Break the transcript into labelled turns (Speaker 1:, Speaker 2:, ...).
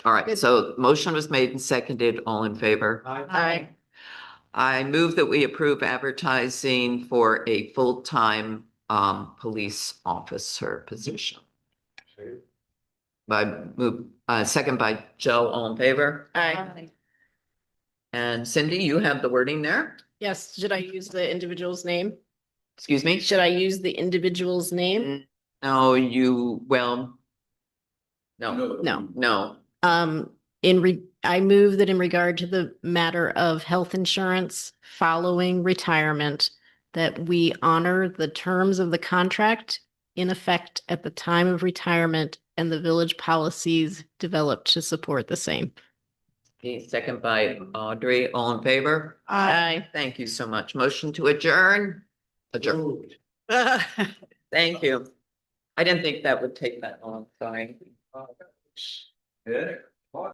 Speaker 1: All right, so motion was made and seconded. All in favor?
Speaker 2: Aye.
Speaker 1: I move that we approve advertising for a full-time um police officer position. By move, uh, second by Joe, all in favor?
Speaker 2: Aye.
Speaker 1: And Cindy, you have the wording there?
Speaker 2: Yes, should I use the individual's name?
Speaker 1: Excuse me?
Speaker 2: Should I use the individual's name?
Speaker 1: No, you, well. No,
Speaker 2: No.
Speaker 1: no,
Speaker 2: Um, in re, I move that in regard to the matter of health insurance following retirement, that we honor the terms of the contract in effect at the time of retirement and the village policies developed to support the same.
Speaker 1: Okay, second by Audrey, all in favor?
Speaker 2: Aye.
Speaker 1: Thank you so much. Motion to adjourn. Adjourn. Thank you. I didn't think that would take that long, sorry.
Speaker 3: Yeah.